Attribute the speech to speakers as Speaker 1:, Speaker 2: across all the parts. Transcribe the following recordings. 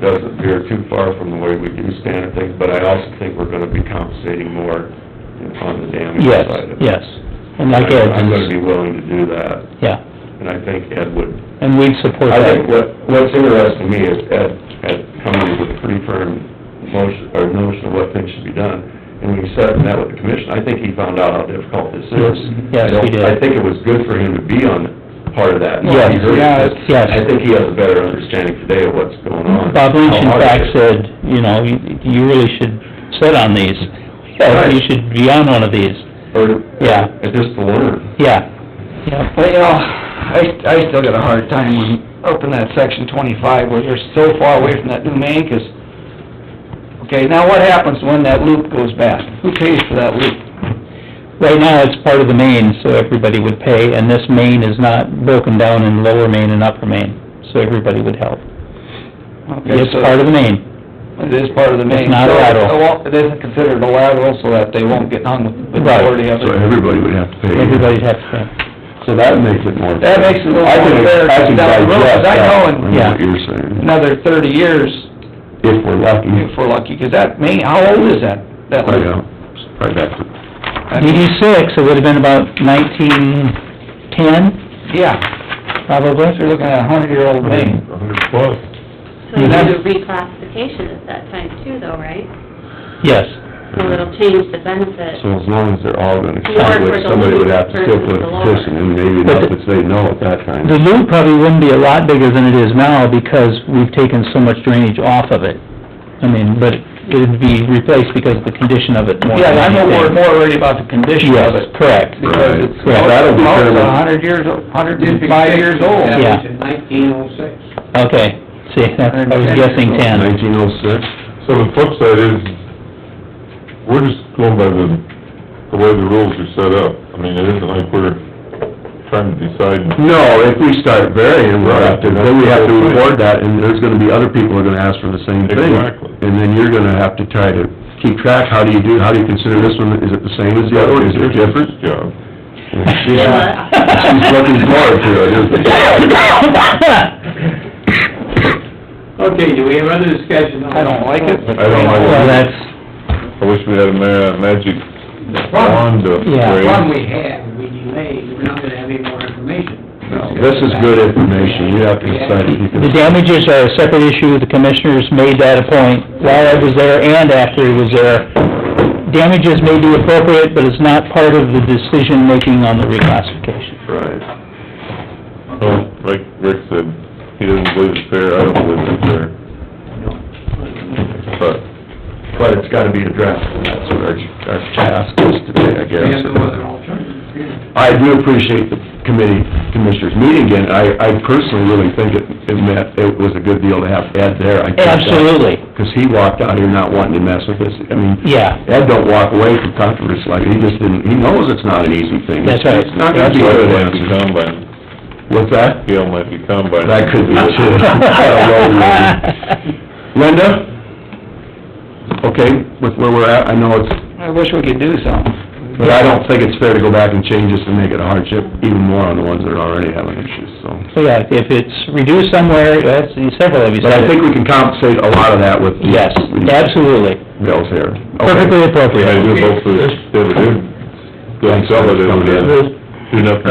Speaker 1: doesn't appear too far from the way we do standard things, but I also think we're gonna be compensating more on the damage
Speaker 2: Yes,
Speaker 1: side of it.
Speaker 2: yes. And like Ed,
Speaker 1: I'm gonna be willing to do that,
Speaker 2: yeah,
Speaker 1: and I think Ed would
Speaker 2: and we'd support
Speaker 1: I think
Speaker 2: that.
Speaker 1: what, what's interesting to me is Ed had come up with a pretty firm motion, or notion of what things should be done. And when he sat and met with the commission, I think he found out how difficult this is. I
Speaker 2: Yes,
Speaker 1: don't-
Speaker 2: he did.
Speaker 1: I think it was good for him to be on part of that. and
Speaker 2: Yes,
Speaker 1: he heard it,
Speaker 2: yeah,
Speaker 1: but
Speaker 2: yes.
Speaker 1: I think he has a better understanding today of what's going on.
Speaker 2: Bob Lynch in
Speaker 1: How hard
Speaker 2: fact
Speaker 1: it is.
Speaker 2: said, you know, you you really should sit on these. Yeah, You
Speaker 1: Right.
Speaker 2: should be on one of these.
Speaker 1: Or,
Speaker 2: Yeah.
Speaker 1: and just to learn.
Speaker 2: Yeah, yeah.
Speaker 3: But, you know, I, I still got a hard time when, up in that section twenty-five where they're so far away from that new main, 'cause, okay, now what happens when that loop goes bad? Who pays for that loop?
Speaker 2: Right now, it's part of the main, so everybody would pay, and this main is not broken down in lower main and upper main, so everybody would help.
Speaker 3: Okay,
Speaker 2: It's
Speaker 3: so
Speaker 2: part of the main,
Speaker 3: It is part of the main.
Speaker 2: It's not a
Speaker 3: So
Speaker 2: lateral.
Speaker 3: it won't- It isn't considered a lateral, so that they won't get hung with the
Speaker 2: Right.
Speaker 3: majority of it.
Speaker 4: everybody would have to pay.
Speaker 2: everybody'd have to pay.
Speaker 4: So that makes it more.
Speaker 3: That makes it a little
Speaker 4: I can-
Speaker 3: more fair
Speaker 4: I can
Speaker 3: down the road, 'cause
Speaker 4: digest
Speaker 3: I
Speaker 4: that,
Speaker 3: know in-
Speaker 4: from
Speaker 2: yeah.
Speaker 4: What you're saying,
Speaker 3: Another thirty years,
Speaker 4: if we're lucky.
Speaker 3: if we're lucky, 'cause that main, how old is that, that
Speaker 4: Probably,
Speaker 2: Oh,
Speaker 3: loop?
Speaker 4: uh, probably back to
Speaker 2: DD six, it would've been about nineteen ten,
Speaker 3: Yeah,
Speaker 2: probably.
Speaker 3: so you're looking at a hundred-year-old main.
Speaker 4: hundred plus.
Speaker 5: So you do reclassification at that time too, though, right?
Speaker 2: Yes,
Speaker 5: So it'll change the benefit.
Speaker 4: So as long as they're all gonna
Speaker 5: More for
Speaker 4: contribute,
Speaker 5: the
Speaker 4: somebody would
Speaker 5: lead
Speaker 4: have to still
Speaker 5: versus
Speaker 4: put a
Speaker 5: the lower.
Speaker 4: petition, and maybe
Speaker 2: But
Speaker 4: not
Speaker 2: the-
Speaker 4: to say no at that time.
Speaker 2: the loop probably wouldn't be a lot bigger than it is now because we've taken so much drainage off of it. I mean, but it'd be replaced because of the condition of it more than
Speaker 3: Yeah, and I know
Speaker 2: anything.
Speaker 3: we're more worried about the condition of
Speaker 2: Yes,
Speaker 3: it.
Speaker 2: correct.
Speaker 3: Because
Speaker 4: Right.
Speaker 3: it's,
Speaker 2: Yeah,
Speaker 4: that'll be
Speaker 3: it's
Speaker 4: fairly-
Speaker 3: a hundred years, a hundred and five years old.
Speaker 2: Yeah.
Speaker 6: Nineteen oh six.
Speaker 2: Okay, see, that's- I was guessing ten.
Speaker 4: Nineteen oh six,
Speaker 7: So the flip side is, we're just going by the, the way the rules are set up. I mean, it isn't like we're trying to decide.
Speaker 4: no, if we start varying, we're up to, then we have to
Speaker 7: Right.
Speaker 4: reward that, and there's gonna be other people who are gonna ask for the same thing.
Speaker 7: Exactly.
Speaker 4: And then you're gonna have to try to keep track, how do you do, how do you consider this one, is it the same as the other one, is it different?
Speaker 7: Yeah.
Speaker 4: Yeah. She's looking forward to it, isn't she?
Speaker 6: Okay, do we have other discussion on
Speaker 3: I don't like it, but...
Speaker 7: I don't like it.
Speaker 2: Well, that's,
Speaker 7: I wish we had a ma- magic wand to
Speaker 2: Yeah.
Speaker 6: The
Speaker 7: wave.
Speaker 6: one we had, we delayed, we're not gonna have any more information.
Speaker 4: No, This is good information, you have to decide if you can...
Speaker 2: the damages are a separate issue, the commissioners made that a point while I was there and after he was there. Damages may be appropriate, but it's not part of the decision-making on the reclassification.
Speaker 1: Right. Oh,
Speaker 7: Well, Like Rick said, he doesn't believe it's fair, I don't believe it's fair. But,
Speaker 1: But it's gotta be addressed, and that's what our, our task is today, I
Speaker 6: We have
Speaker 1: guess.
Speaker 6: no other alternative here.
Speaker 4: I do appreciate the committee commissioners meeting again, I, I personally really think it, it meant, it was a good deal to have Ed there.
Speaker 2: Absolutely,
Speaker 4: Because he walked out here not wanting to mess with us, I mean...
Speaker 2: yeah,
Speaker 4: Ed don't walk away from controversy like, he just didn't, he knows it's not an easy thing.
Speaker 2: That's right.
Speaker 4: It's not gonna
Speaker 7: that's
Speaker 4: be
Speaker 7: why it
Speaker 4: a good
Speaker 7: might be
Speaker 4: answer.
Speaker 7: combine,
Speaker 4: What's that?
Speaker 7: Gail might be combine.
Speaker 4: That could be it, too. I don't know, really. Linda? Okay, with where we're at, I know it's,
Speaker 3: I wish we could do something.
Speaker 4: but I don't think it's fair to go back and change this and make it a hardship even more on the ones that are already having issues, so.
Speaker 2: So, yeah, if it's reduced somewhere, that's, several of you
Speaker 4: But I
Speaker 2: said it.
Speaker 4: think we can compensate a lot of that with the
Speaker 2: Yes, absolutely,
Speaker 4: bills here.
Speaker 2: perfectly
Speaker 7: We had to
Speaker 2: appropriate.
Speaker 7: do both of this, they would do, don't sell it, and do nothing.
Speaker 3: Yeah.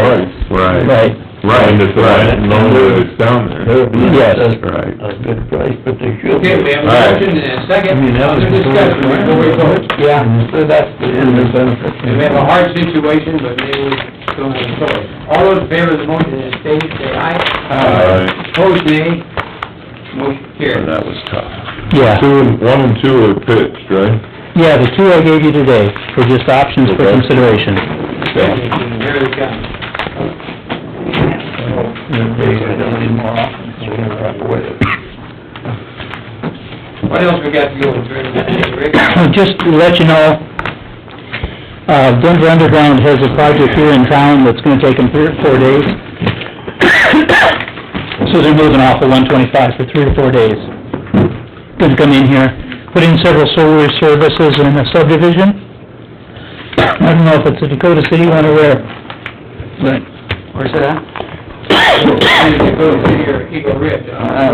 Speaker 4: Right.
Speaker 2: Right,
Speaker 7: Right, and it's a lot longer that it's down there.
Speaker 2: yes.
Speaker 4: Right.
Speaker 1: good price, but they should.
Speaker 6: Okay, we have a
Speaker 7: All right.
Speaker 6: motion and a second,
Speaker 1: I mean, that was
Speaker 6: other discussion before we vote.
Speaker 3: Yeah, so that's the end of
Speaker 6: We have a hard situation, but maybe we don't have a choice. All those in favor of the motion as stated, say aye.
Speaker 7: Alright,
Speaker 6: Opposed, nay. Motion
Speaker 4: So
Speaker 6: carried.
Speaker 4: That was tough.
Speaker 2: yeah.
Speaker 7: two and, one and two are pitched, right?
Speaker 2: Yeah, the two I gave you today were just options for
Speaker 7: Okay.
Speaker 2: consideration.
Speaker 6: Here they come. What else we got to go through, Rick?
Speaker 2: Just to let you know, uh, Denver Underground has a project here in town that's gonna take them three or four days. So they're moving off of one twenty-five for three to four days. Gonna come in here, put in several solar services in a subdivision. I don't know if it's a Dakota City one or where, but
Speaker 3: Where's that?
Speaker 6: Go to your Eagle Ridge, huh?